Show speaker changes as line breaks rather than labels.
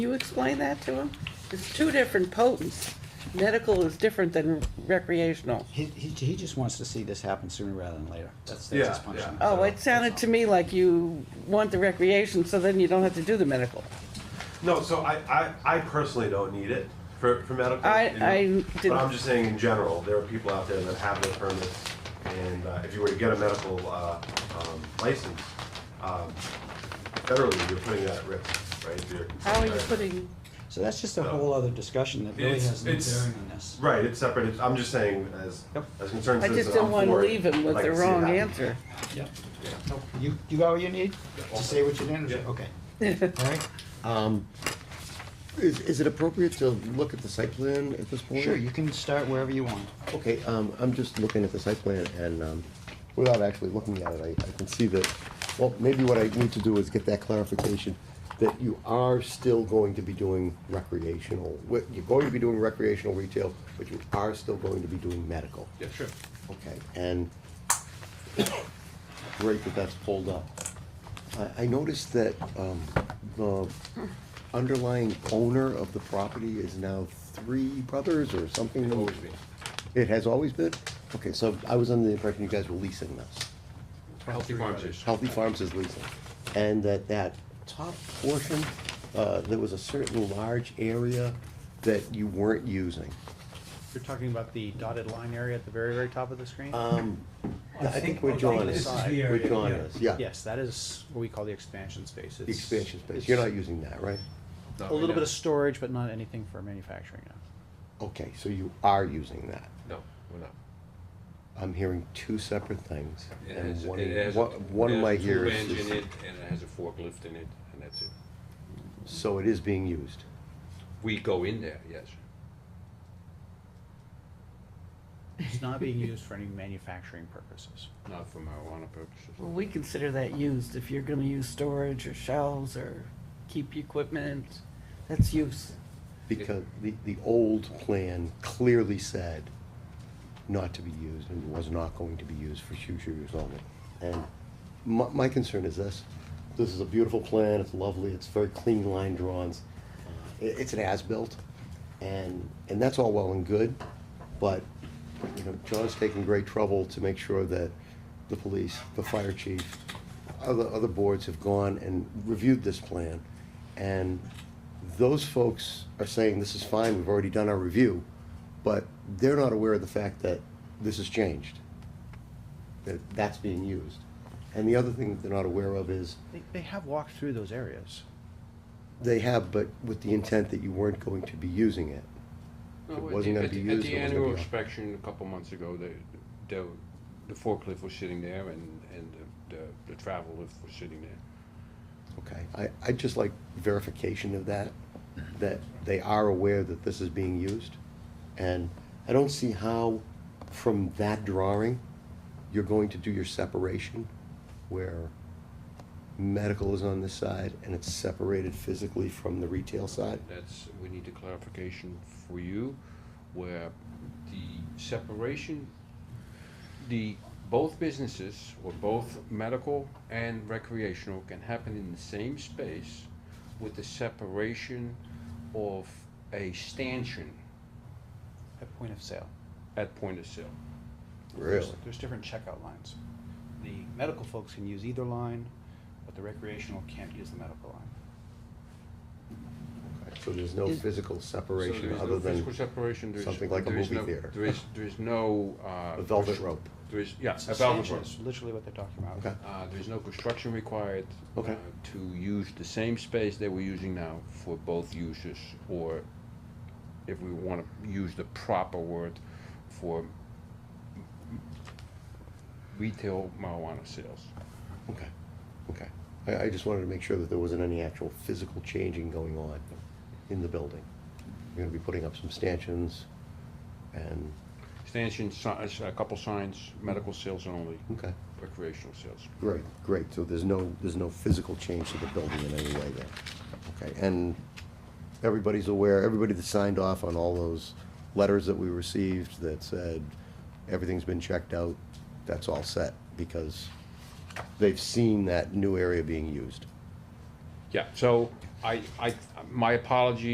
you explain that to him? It's two different potents. Medical is different than recreational.
He, he, he just wants to see this happen sooner rather than later. That's, that's his
Yeah,
punishment.
yeah.
Oh, it sounded to me like you want the recreation, so then you don't have to do the medical.
No, so I, I, I personally don't need it for, for medical.
I-
you know,
I
But
didn't-
I'm just saying in general, there are people out there that have their permits, and uh, if you were to get a medical, uh, um, license, um, federally, you're putting that at risk, right? if you're-
How are you putting,
So that's just a whole other discussion that really
It's-
has no
it's-
bearing on this.
Right, it's separate, It's- I'm just saying as,
Yep.
as concerned
I
citizens,
just don't
I'm
want to
for it.
leave him with
Like
the
to see it
wrong
happen.
answer.
Yep. You, you got what you need to say what you didn't,
Yeah.
okay. All right,
Is, is it appropriate to look at the site plan at this point?
sure, you can start wherever you want.
Okay, um, I'm just looking at the site plan and, um, without actually looking at it, I, I can see that, well, maybe what I need to do is get that clarification that you are still going to be doing recreational, what- you're going to be doing recreational retail, but you are still going to be doing medical.
Yeah, sure.
Okay, and great that that's pulled up. I, I noticed that, um, the underlying owner of the property is now Three Brothers or something. Always been. It has always been? Okay, so I was under the impression you guys were leasing this.
Healthy farms is.
Healthy Farms is leasing. And that that top portion, uh, there was a certain large area that you weren't using.
You're talking about the dotted line area at the very, very top of the screen?
Um,
I
I think
think-
we're
I think
John
this
is,
is the
we're
area,
John
yeah.
is, yeah.
Yes, that is what we call the expansion space.
The expansion space, you're not using that, right?
A little bit of storage, but not anything for manufacturing now.
Okay, so you are using that.
No, we're not.
I'm hearing two separate things,
It
and
has,
one,
it has.
one- one
it
of
has
my
a tube
ears
Engine in
is,
it, and it has a forklift in it, and that's it.
so it is being used.
We go in there, yes.
It's not being used for any manufacturing purposes.
Not for marijuana purposes.
Well, we consider that used if you're gonna use storage or shelves or keep equipment. That's use.
Because the, the old plan clearly said not to be used and was not going to be used for future use only. And my, my concern is this, this is a beautiful plan, it's lovely, it's very clean line drawings. Uh, It, it's an as-built, and, and that's all well and good, but, you know, John's taking great trouble to make sure that the police, the fire chief, other, other boards have gone and reviewed this plan, and those folks are saying, this is fine, we've already done our review, but they're not aware of the fact that this has changed, that that's being used. And the other thing that they're not aware of is,
They, they have walked through those areas.
they have, but with the intent that you weren't going to be using it.
No,
It
at
wasn't
the-
gonna
at
be
the-
used, it
At the
wasn't gonna
annual
be on.
inspection a couple months ago, the, the, the forklift was sitting there, and, and the, the- the travel lift was sitting there.
Okay, I, I'd just like verification of that, that they are aware that this is being used. And I don't see how, from that drawing, you're going to do your separation where medical is on this side and it's separated physically from the retail side.
That's, we need a clarification for you, where the separation, the, both businesses, or both medical and recreational, can happen in the same space with the separation of a stanchion
At point of sale.
at point of sale.
There's- There's different checkout lines. The medical folks can use either line, but the recreational can't use the medical line.
So there's no
Is-
physical
So there
separation
is
other
no physical
than
separation, there is-
something like a
there is
movie
no-
theater.
There is, there is no, uh.
a velvet
constr-
rope.
There is, yeah, a velvet
Substantial
rope.
is literally what they're talking about.
Okay.
Uh, there's no construction required.
Okay.
uh, To use the same space that we're using now for both uses, or if we wanna use the proper word for retail marijuana sales.
Okay, okay. I, I just wanted to make sure that there wasn't any actual physical changing going on in the building. You're gonna be putting up some stanchions and,
Stanchions, si- uh, a couple signs, medical sales only,
okay,
recreational sales.
great, great. So there's no, there's no physical change to the building in any way there. Okay, and everybody's aware, everybody that signed off on all those letters that we received that said everything's been checked out, that's all set because they've seen that new area being used.
Yeah, so I, I, um, my apology